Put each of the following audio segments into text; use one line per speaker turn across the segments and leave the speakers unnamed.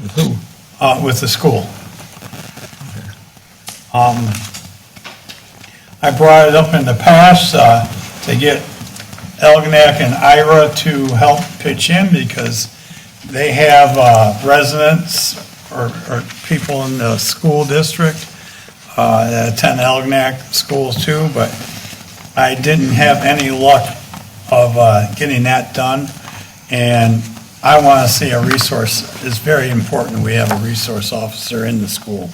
With who?
uh, with the school. Um, I brought it up in the past uh, to get Elginak and Ira to help pitch in because they have uh, residents or or people in the school district uh, that attend Elginak schools too, but I didn't have any luck of uh, getting that done. And I want to see a resource, it's very important we have a resource officer in the school.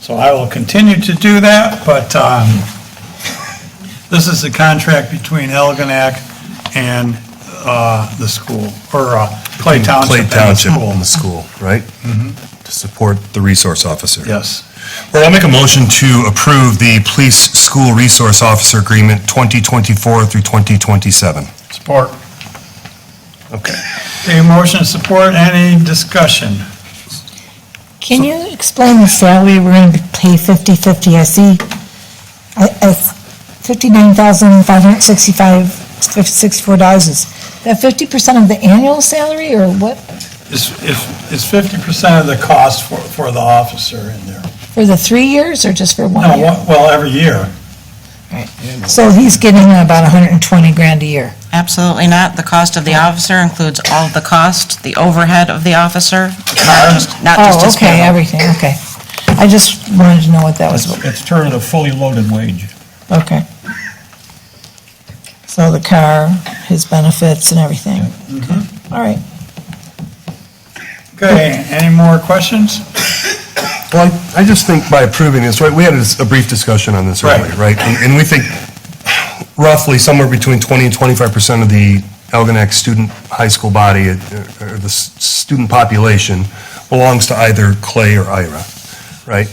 So I will continue to do that, but um, this is a contract between Elginak and uh, the school, or uh, Clay Township and the school.
and the school, Mm-hmm. right? To support the resource officer.
Yes,
Well, I'll make a motion to approve the Police School Resource Officer Agreement 2024 through 2027.
support.
Okay.
Okay, motion and support, any discussion?
Can you explain the salary we're going to pay 50/50? I see, I, I, $59,565, dollars is that 50% of the annual salary or what,
Is is fifty percent of the cost for, for the officer in there?
for the three years or just for
No,
one year?
well- well, every year.
So he's getting about 120 grand a year.
Absolutely not. The cost of the
Oh.
officer includes all of the cost, the overhead of the officer, not just, not just
Oh,
his
okay,
payroll.
everything, okay. I just wanted to know what that was,
It's turned a fully loaded wage.
okay. So the car, his benefits and everything. Okay. All right.
Okay, any more questions?
Well, I I just think by approving this, right, we had a s- a brief discussion on this
Right.
earlier, right? And and we think roughly somewhere between 20 and 25% of the Algonac student high school body, uh, or the s- student population, belongs to either Clay or Ira, right?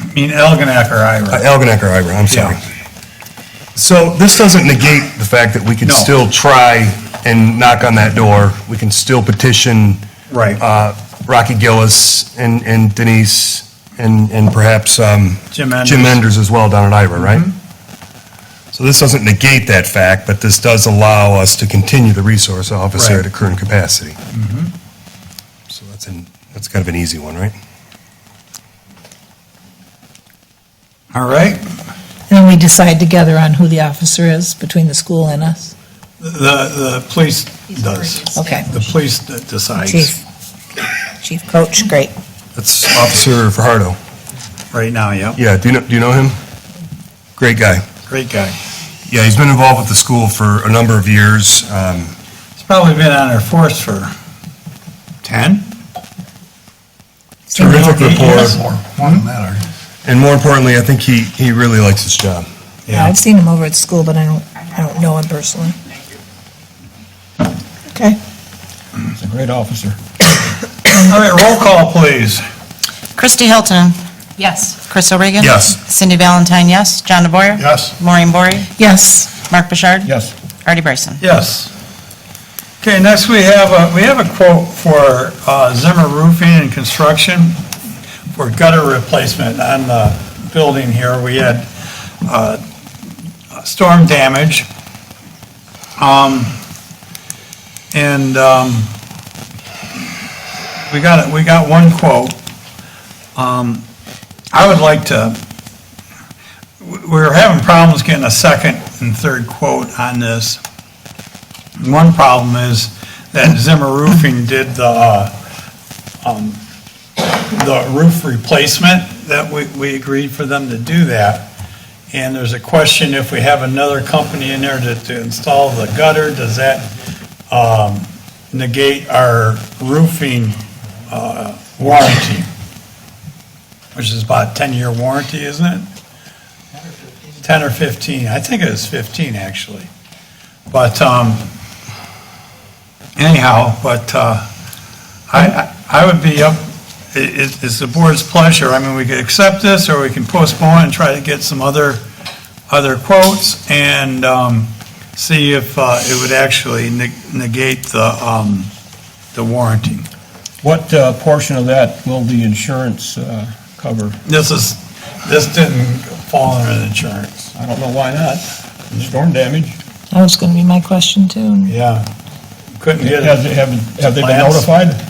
I mean, Elginak or
Uh,
Ira?
Algonac or Ira, I'm sorry.
Yeah.
So this doesn't negate the fact that we could
No.
still try and knock on that door. We can still petition
Right,
uh, Rocky Gillis and and Denise and and perhaps um,
Jim Mm-hmm. Enders.
Jim Enders as well down at Ira, right? So this doesn't negate that fact, but this does allow us to continue the resource
Right.
officer
Mm-hmm.
at a current capacity. So that's an, that's kind of an easy one, right?
Uh, all right.
And we decide together on who the officer is between the school and us?
The, the police does.
Okay.
The police d- decides
Chief. Chief Coach, great.
That's Officer Fajardo.
right now, yeah.
Yeah, do you know, do you know him? Great guy.
Great guy.
Yeah, he's been involved with the school for a number of years. Um,
He's probably been on our force for 10?
Terrific
Eight years?
rapport. And more importantly, I think he, he really likes his job.
Yeah, I've seen him over at school, but I don't, I don't know him personally. Okay.
He's a great officer.
All right, roll call, please.
Christy Hilton,
Yes.
Chris O'Regan.
Yes.
Cindy Valentine, yes. John DeBoyer.
Yes.
Maureen Bory,
Yes,
Mark Bouchard.
Yes.
Artie Bryson.
Yes. Okay, next we have, a- we have a quote for uh, Zimmer Roofing and Construction for gutter replacement on the building here. We had uh, storm damage. Um, And um, we got, it. we got one quote. Um, I would like to, we- we're having problems getting a second and third quote on this. One problem is that Zimmer Roofing did the, uh, um, the roof replacement that we, we agreed for them to do that. And there's a question if we have another company in there to, to install the gutter, does that, um, negate our roofing, uh, warranty? Which is about ten-year warranty, isn't it? Ten or fifteen, I think it is fifteen, actually. But, um, anyhow, but, uh, I, I I would be up, i- i- it's the board's pleasure. I mean, we could accept this, or we can postpone and try to get some other, other quotes, and, um, see if, uh, it would actually neg- negate the, um, the warranty.
What uh, portion of that will the insurance uh, cover?
This is, this didn't fall under insurance.
I don't know why not. Storm damage.
that was gonna be my question too.
Yeah. Couldn't get it.
Has, have, have they been
Plans?
notified?